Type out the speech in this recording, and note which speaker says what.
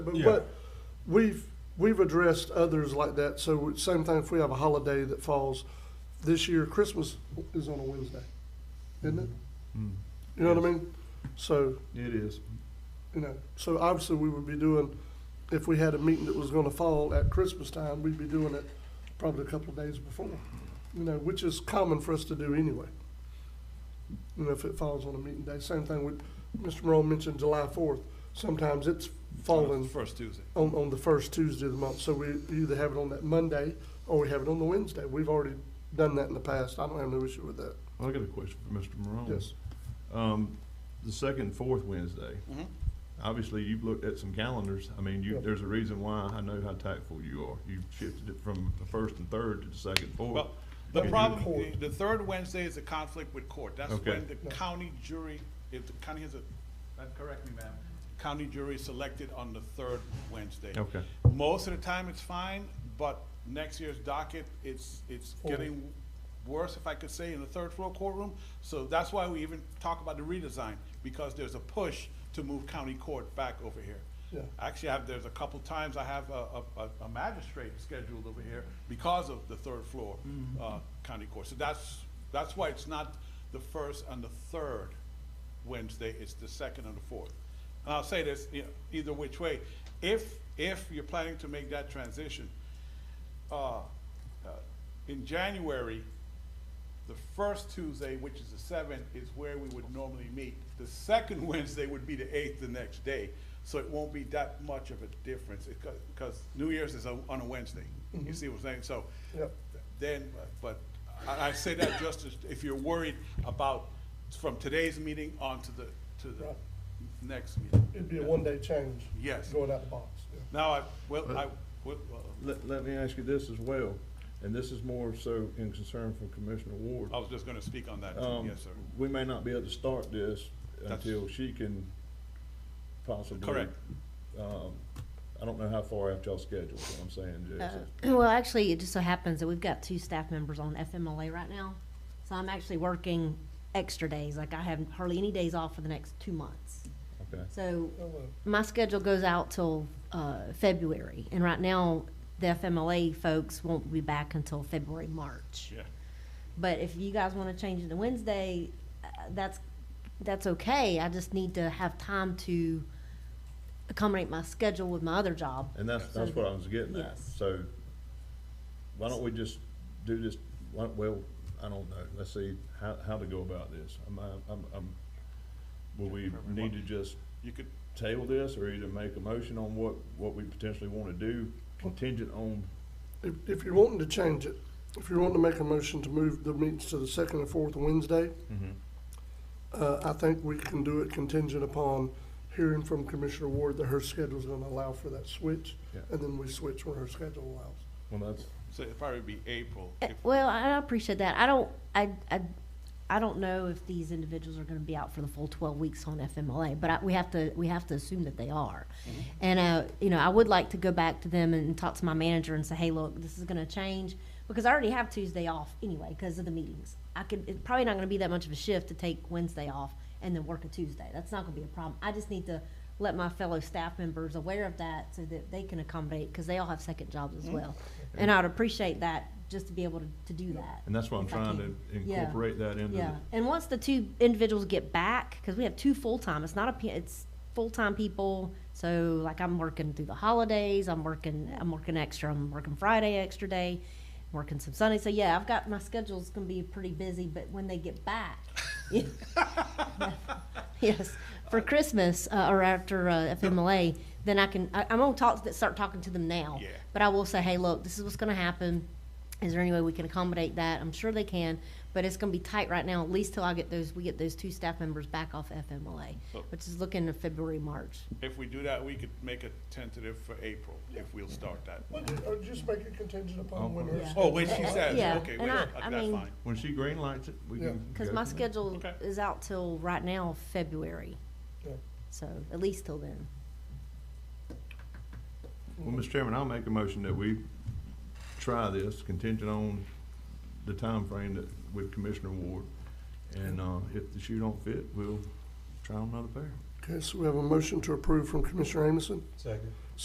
Speaker 1: But
Speaker 2: Yeah.
Speaker 1: what we've we've addressed others like that. So same thing if we have a holiday that falls this year, Christmas is on a Wednesday, isn't it?
Speaker 2: Mm,
Speaker 1: You know what I mean? So
Speaker 2: It is.
Speaker 1: you know, so obviously we would be doing if we had a meeting that was going to fall at Christmas time, we'd be doing it probably a couple of days before. You know, which is common for us to do anyway. You know, if it falls on a meeting day, same thing with Mr. Morone mentioned July Fourth. Sometimes it's falling Oh.
Speaker 3: First Tuesday.
Speaker 1: on, on the first Tuesday of the month, so we either have it on that Monday or we have it on the Wednesday. We've already done that in the past, I don't have no issue with that,
Speaker 2: I got a question for Mr. Morone.
Speaker 1: yes.
Speaker 2: Um, the second and fourth Wednesday,
Speaker 3: Mhm.
Speaker 2: obviously you've looked at some calendars. I mean, you,
Speaker 1: Yeah.
Speaker 2: there's a reason why I know how tactful you are. You've shifted it from the first and third to the second and fourth.
Speaker 3: Well, the
Speaker 2: And you-
Speaker 3: problem,
Speaker 1: Court.
Speaker 3: the third Wednesday is a conflict with court. That's
Speaker 2: Okay.
Speaker 3: when the county jury, if the county has a, uh, correct me, ma'am, county jury is selected on the third Wednesday.
Speaker 2: Okay.
Speaker 3: Most of the time, it's fine, but next year's docket, it's, it's
Speaker 1: Full.
Speaker 3: getting worse, if I could say, in the third floor courtroom. So that's why we even talk about the redesign, because there's a push to move county court back over here.
Speaker 1: Yeah.
Speaker 3: Actually, I have, there's a couple times I have a, a, a- a magistrate scheduled over here because of the third floor, uh, county court. So that's, that's why it's not the first and the third Wednesday, it's the second and the fourth. And I'll say this, you know, either which way, if, if you're planning to make that transition, uh, uh, in January, the first Tuesday, which is the seventh, is where we would normally meet. The second Wednesday would be the eighth the next day, so it won't be that much of a difference, because New Year's is on on a Wednesday. You see what I'm saying? So
Speaker 1: Mm-hmm. Yep.
Speaker 3: then, but I, I say that just as, if you're worried about from today's meeting on to the, to the
Speaker 1: Right.
Speaker 3: next meeting.
Speaker 1: It'd be a one-day change.
Speaker 3: Yes.
Speaker 1: Going out the box, yeah.
Speaker 3: Now, I, well, I,
Speaker 2: But-
Speaker 3: well, uh,
Speaker 2: Let, let me ask you this as well, and this is more so in concern for Commissioner Ward.
Speaker 3: I was just gonna speak on that, too.
Speaker 2: Um,
Speaker 3: Oh, yes, sir.
Speaker 2: We may not be able to start this
Speaker 3: That's-
Speaker 2: until she can possibly.
Speaker 3: Correct.
Speaker 2: Um, I don't know how far out y'all scheduled, is what I'm saying, Jason.
Speaker 4: Uh, Well, actually, it just so happens that we've got two staff members on FMLA right now, so I'm actually working extra days, like I have hardly any days off for the next two months.
Speaker 2: Okay.
Speaker 4: So
Speaker 1: Oh, well.
Speaker 4: my schedule goes out till, uh, February, and right now, the FMLA folks won't be back until February, March.
Speaker 3: Yeah.
Speaker 4: But if you guys wanna change it to Wednesday, uh, that's, that's okay, I just need to have time to accommodate my schedule with my other job.
Speaker 2: And that's,
Speaker 4: So-
Speaker 2: that's what I was getting at.
Speaker 4: Yes.
Speaker 2: So why don't we just do this, why- well, I don't know, let's see how, how to go about this. I'm, I'm, I'm, will we need to just
Speaker 3: You could,
Speaker 2: table this or either make a motion on what, what we potentially want to do contingent on,
Speaker 1: If, if you're wanting to change it, if you're wanting to make a motion to move the meetings to the second and fourth Wednesday,
Speaker 2: Mm-hmm.
Speaker 1: uh, I think we can do it contingent upon hearing from Commissioner Ward that her schedule's gonna allow for that switch.
Speaker 2: Yeah.
Speaker 1: And then we switch when her schedule allows.
Speaker 2: well, that's,
Speaker 3: so it'd probably be April.
Speaker 4: Uh,
Speaker 3: if-
Speaker 4: Well, I I appreciate that. I don't, I, I, I don't know if these individuals are gonna be out for the full twelve weeks on FMLA, but I, we have to, we have to assume that they are. And, uh, you know, I would like to go back to them and talk to my manager and say, hey, look, this is gonna change, because I already have Tuesday off anyway, because of the meetings. I could, it's probably not gonna be that much of a shift to take Wednesday off and then work a Tuesday. That's not gonna be a problem. I just need to let my fellow staff members aware of that so that they can accommodate, because they all have second jobs as well. And I'd appreciate that, just to be able to, to do that.
Speaker 2: and that's why I'm
Speaker 4: If I
Speaker 2: trying to
Speaker 4: can. Yeah.
Speaker 2: incorporate that into
Speaker 4: Yeah,
Speaker 2: the,
Speaker 4: and once the two individuals get back, because we have two full-time, it's not a, pe- it's full-time people, so like I'm working through the holidays, I'm working, I'm working extra, I'm working Friday extra day, working some Sunday, so yeah, I've got, my schedule's gonna be pretty busy, but when they get back, yes, for Christmas, uh, or after, uh, FMLA, then I can, I, I'm gonna talk, to- start talking to them now.
Speaker 3: Yeah.
Speaker 4: But I will say, hey, look, this is what's gonna happen. Is there any way we can accommodate that? I'm sure they can, but it's gonna be tight right now, at least till I get those, we get those two staff members back off FMLA,
Speaker 3: So-
Speaker 4: which is looking at February, March.
Speaker 3: If we do that, we could make a tentative for April, if we'll start that.
Speaker 1: Or just make it contingent upon
Speaker 2: when
Speaker 1: when
Speaker 2: her
Speaker 1: her.
Speaker 2: Yeah.
Speaker 3: Oh, wait, she says,
Speaker 4: Yeah,
Speaker 3: okay,
Speaker 4: and
Speaker 3: wait,
Speaker 4: I-
Speaker 3: uh,
Speaker 4: I
Speaker 3: that's
Speaker 4: mean-
Speaker 3: fine.
Speaker 2: when she green lights it, we
Speaker 1: Yeah.
Speaker 2: can.
Speaker 4: Because
Speaker 2: go
Speaker 4: my
Speaker 2: from there.
Speaker 4: schedule
Speaker 3: Okay.
Speaker 4: is out till right now, February, so at least till then.
Speaker 2: Well, Mr. Chairman, I'll make a motion that we try this contingent on the time frame that with Commissioner Ward. And, uh, if the shoe don't fit, we'll try another pair.
Speaker 1: Okay, so we have a motion to approve from Commissioner Amison.
Speaker 5: Second.